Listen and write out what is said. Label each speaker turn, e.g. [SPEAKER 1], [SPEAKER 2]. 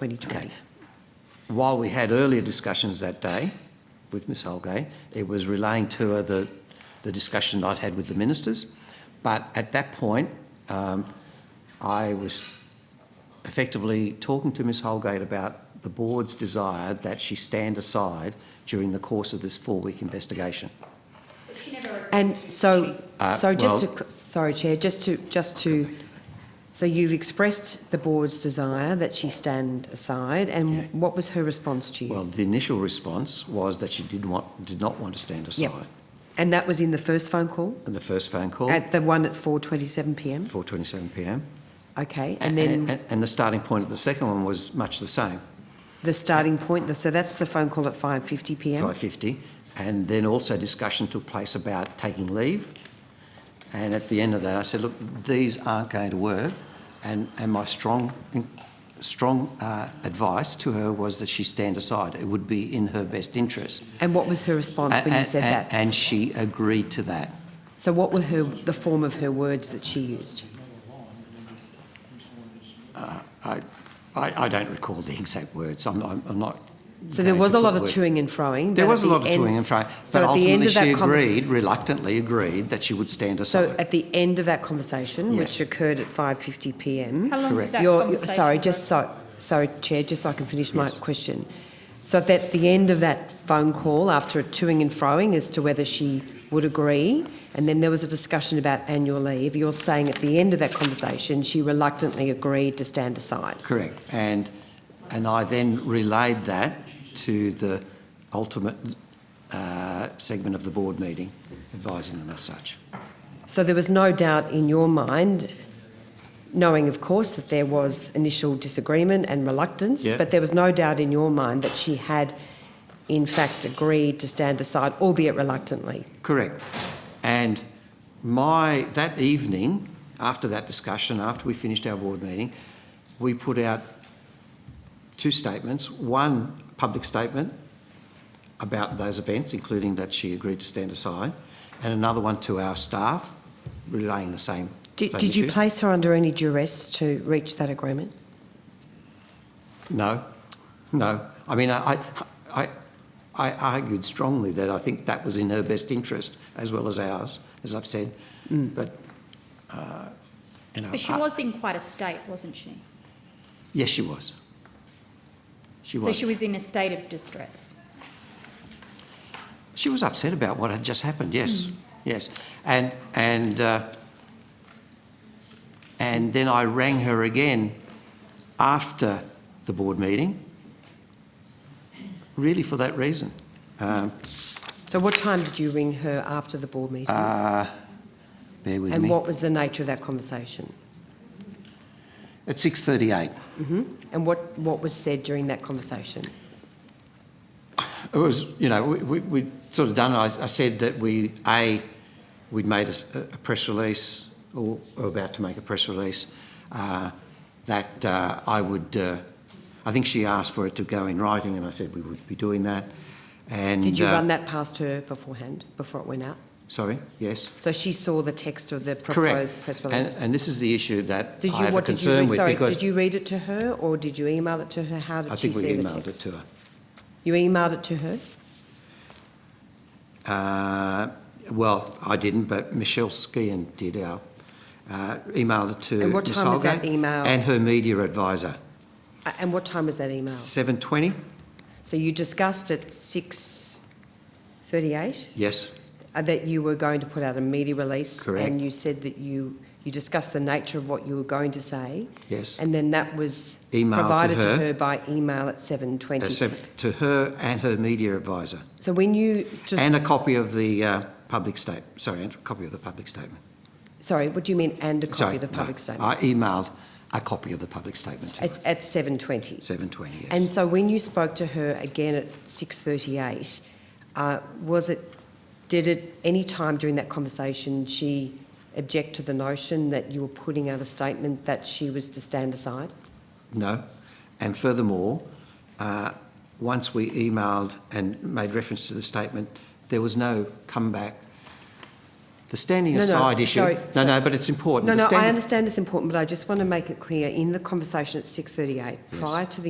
[SPEAKER 1] 2020.
[SPEAKER 2] While we had earlier discussions that day with Ms Holgate, it was relaying to her the, the discussion I'd had with the ministers. But at that point, um, I was effectively talking to Ms Holgate about the board's desire that she stand aside during the course of this four-week investigation.
[SPEAKER 1] And so,
[SPEAKER 2] Uh,
[SPEAKER 1] so just to,
[SPEAKER 2] well-
[SPEAKER 1] cl- sorry, Chair, just to, just to, so you've expressed the board's desire that she stand aside,
[SPEAKER 2] Yeah.
[SPEAKER 1] and what was her response to you?
[SPEAKER 2] Well, the initial response was that she did want, did not want to stand
[SPEAKER 1] Yep.
[SPEAKER 2] aside.
[SPEAKER 1] And that was in the first phone call,
[SPEAKER 2] And the first phone call,
[SPEAKER 1] at the one at 4:27 PM?
[SPEAKER 2] 4:27 PM.
[SPEAKER 1] Okay, and then
[SPEAKER 2] And, and the starting point of the second one was much the same.
[SPEAKER 1] the starting point, the- so that's the phone call at 5:50 PM?
[SPEAKER 2] 550. And then also discussion took place about taking leave. And at the end of that, I said, look, these aren't going to work. And, and my strong, strong uh, advice to her was that she stand aside. It would be in her best interest.
[SPEAKER 1] And what was her response when you
[SPEAKER 2] And-
[SPEAKER 1] said
[SPEAKER 2] and-
[SPEAKER 1] that?
[SPEAKER 2] And she agreed to that.
[SPEAKER 1] So what were her, the form of her words that she used?
[SPEAKER 2] I, I, I don't recall the exact words. I'm, I'm, I'm not.
[SPEAKER 1] So there
[SPEAKER 2] going
[SPEAKER 1] was
[SPEAKER 2] to
[SPEAKER 1] a
[SPEAKER 2] put
[SPEAKER 1] lot of
[SPEAKER 2] words.
[SPEAKER 1] toing and froing.
[SPEAKER 2] There
[SPEAKER 1] but at
[SPEAKER 2] was a
[SPEAKER 1] the
[SPEAKER 2] lot of
[SPEAKER 1] end-
[SPEAKER 2] toing and fro, but
[SPEAKER 1] So at the end
[SPEAKER 2] ultimately
[SPEAKER 1] of
[SPEAKER 2] she
[SPEAKER 1] that conversation.
[SPEAKER 2] agreed, reluctantly agreed, that she would stand
[SPEAKER 1] So
[SPEAKER 2] aside.
[SPEAKER 1] at the end of that conversation,
[SPEAKER 2] Yes.
[SPEAKER 1] which occurred at 5:50 PM.
[SPEAKER 3] How long
[SPEAKER 2] Correct.
[SPEAKER 3] did that
[SPEAKER 1] Your-
[SPEAKER 3] conversation
[SPEAKER 1] Sorry,
[SPEAKER 3] go
[SPEAKER 1] just so, sorry, Chair, just so I can finish my
[SPEAKER 2] Yes.
[SPEAKER 1] question. So at that- the end of that phone call, after a toing and froing as to whether she would agree, and then there was a discussion about annual leave, you're saying at the end of that conversation, she reluctantly agreed to stand aside.
[SPEAKER 2] Correct. And, and I then relayed that to the ultimate uh, segment of the board meeting, advising them of such.
[SPEAKER 1] So there was no doubt in your mind, knowing of course that there was initial disagreement and reluctance,
[SPEAKER 2] Yeah.
[SPEAKER 1] but there was no doubt in your mind that she had in fact agreed to stand aside, albeit reluctantly.
[SPEAKER 2] Correct. And my, that evening, after that discussion, after we finished our board meeting, we put out two statements. One public statement about those events, including that she agreed to stand aside, and another one to our staff relaying the same.
[SPEAKER 1] Did,
[SPEAKER 2] same
[SPEAKER 1] did you
[SPEAKER 2] issue.
[SPEAKER 1] place her under any duress to reach that agreement?
[SPEAKER 2] No, no. I mean, I, I, I- I argued strongly that I think that was in her best interest as well as ours, as I've said. But, uh, you know,
[SPEAKER 3] But she
[SPEAKER 2] I-
[SPEAKER 3] was in quite a state, wasn't she?
[SPEAKER 2] Yes, she was. She
[SPEAKER 3] So
[SPEAKER 2] was.
[SPEAKER 3] she was in a state of distress.
[SPEAKER 2] She was upset about what had just happened. Yes,
[SPEAKER 3] Mm.
[SPEAKER 2] yes, and and uh, and then I rang her again after the board meeting, really for that reason.
[SPEAKER 1] So what time did you ring her after the board meeting?
[SPEAKER 2] Bear
[SPEAKER 1] and
[SPEAKER 2] with Ah, me.
[SPEAKER 1] what was the nature of that conversation?
[SPEAKER 2] At six thirty-eight,
[SPEAKER 1] And what, what was said during that conversation?
[SPEAKER 2] it was you know we we we'd sort of done. I, I said that we a we'd made a, s- a press release or, or about to make a press release uh, that uh, I would. Uh, I think she asked for it to go in writing, and I said we would be doing that. And
[SPEAKER 1] Did you
[SPEAKER 2] uh,
[SPEAKER 1] run that past her beforehand, before it went out?
[SPEAKER 2] Sorry. Yes.
[SPEAKER 1] So she saw the text of the proposed
[SPEAKER 2] Correct.
[SPEAKER 1] press
[SPEAKER 2] and,
[SPEAKER 1] release?
[SPEAKER 2] and this is the issue that
[SPEAKER 1] Did you,
[SPEAKER 2] I have
[SPEAKER 1] what did
[SPEAKER 2] a
[SPEAKER 1] you,
[SPEAKER 2] concern
[SPEAKER 1] read-
[SPEAKER 2] with
[SPEAKER 1] sorry,
[SPEAKER 2] because
[SPEAKER 1] did you read it to her or did you email it to her? How did
[SPEAKER 2] I
[SPEAKER 1] she
[SPEAKER 2] think we
[SPEAKER 1] see the
[SPEAKER 2] emailed it
[SPEAKER 1] text?
[SPEAKER 2] to her.
[SPEAKER 1] You emailed it to her?
[SPEAKER 2] Uh, well, I didn't, but Michelle Skian did our, uh, emailed it to
[SPEAKER 1] And what
[SPEAKER 2] Ms
[SPEAKER 1] time was that
[SPEAKER 2] Holgate
[SPEAKER 1] email?
[SPEAKER 2] And her media advisor,
[SPEAKER 1] A- And what time was that email?
[SPEAKER 2] seven twenty,
[SPEAKER 1] So you discussed at 6:38
[SPEAKER 2] yes,
[SPEAKER 1] uh, that you were going to put out a media release?
[SPEAKER 2] Correct.
[SPEAKER 1] And you said that you, you discussed the nature of what you were going to say?
[SPEAKER 2] yes. Uh,
[SPEAKER 1] And then that was
[SPEAKER 2] Emailed to
[SPEAKER 1] provided to
[SPEAKER 2] her.
[SPEAKER 1] her by email at
[SPEAKER 2] Uh,
[SPEAKER 1] 7:20?
[SPEAKER 2] seven- To her and her media advisor,
[SPEAKER 1] So when you just,
[SPEAKER 2] and a copy of the, uh, public state, sorry, and a copy of the public statement.
[SPEAKER 1] sorry, what do you mean and a
[SPEAKER 2] Sorry,
[SPEAKER 1] copy of the
[SPEAKER 2] no,
[SPEAKER 1] public statement?
[SPEAKER 2] I emailed a copy of the public statement to
[SPEAKER 1] It's at 7:20?
[SPEAKER 2] seven twenty, yes.
[SPEAKER 1] And so when you spoke to her again at 6:38, uh, was it, did at any time during that conversation she object to the notion that you were putting out a statement that she was to stand aside?
[SPEAKER 2] No. And furthermore, uh, once we emailed and made reference to the statement, there was no comeback. The standing
[SPEAKER 1] No, no,
[SPEAKER 2] aside issue.
[SPEAKER 1] sorry,
[SPEAKER 2] no,
[SPEAKER 1] so-
[SPEAKER 2] no, but it's important.
[SPEAKER 1] No,
[SPEAKER 2] The
[SPEAKER 1] no, I
[SPEAKER 2] standing-
[SPEAKER 1] understand it's important, but I just want to make it clear, in the conversation at 6:38, prior to the